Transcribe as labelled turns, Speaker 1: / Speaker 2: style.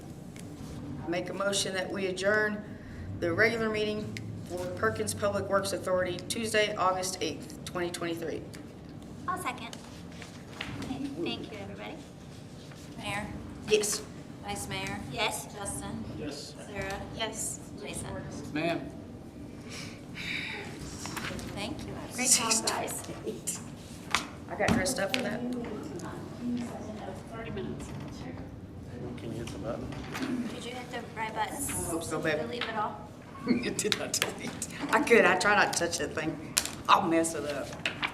Speaker 1: make a motion that we adjourn the regular meeting for Perkins Public Works Authority Tuesday, August 8th, 2023.
Speaker 2: I'll second. Okay, thank you, everybody.
Speaker 3: Mayor,
Speaker 1: Yes.
Speaker 3: Vice Mayor,
Speaker 2: Yes?
Speaker 3: Justin,
Speaker 4: Yes.
Speaker 3: Sarah,
Speaker 2: Yes.
Speaker 3: Jason.
Speaker 4: Ma'am.
Speaker 3: Thank you.
Speaker 2: Great job, guys.
Speaker 1: I got dressed up for that.
Speaker 4: Can you hit the button?
Speaker 2: Did you hit the right button? I
Speaker 1: hope so, babe.
Speaker 2: Delete it all?
Speaker 1: It did not delete. I could, I try not to touch that thing. I'll mess it up.